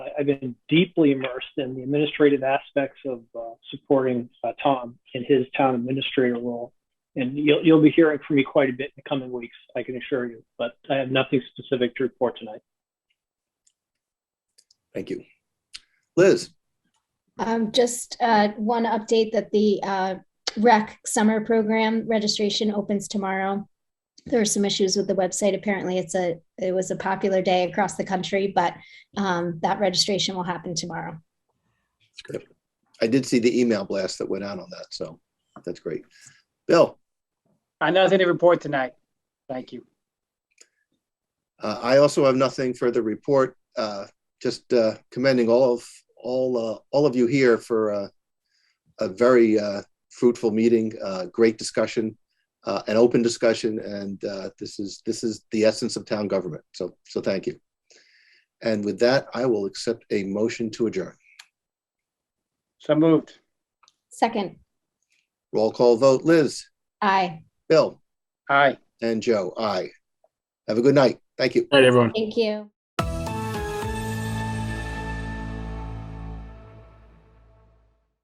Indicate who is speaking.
Speaker 1: I've been deeply immersed in the administrative aspects of uh, supporting uh, Tom in his town administrator role. And you'll, you'll be hearing from me quite a bit in the coming weeks, I can assure you. But I have nothing specific to report tonight.
Speaker 2: Thank you. Liz,
Speaker 3: Um, just, uh, one update that the, uh, rec summer program registration opens tomorrow. There were some issues with the website. Apparently it's a, it was a popular day across the country, but, um, that registration will happen tomorrow.
Speaker 2: I did see the email blast that went out on that, so that's great. Bill,
Speaker 4: I have nothing to report tonight. Thank you.
Speaker 2: uh, I also have nothing further to report. Uh, Just uh, commending all of, all, uh, all of you here for uh, a very uh, fruitful meeting, uh, great discussion, uh, an open discussion, and uh, this is, this is the essence of town government. So, so thank you. And with that, I will accept a motion to adjourn.
Speaker 4: So moved.
Speaker 3: Second,
Speaker 2: Roll call vote, Liz,
Speaker 3: aye.
Speaker 2: Bill,
Speaker 4: Aye.
Speaker 2: and Joe, aye. Have a good night. Thank you.
Speaker 5: All right, everyone.
Speaker 3: Thank you.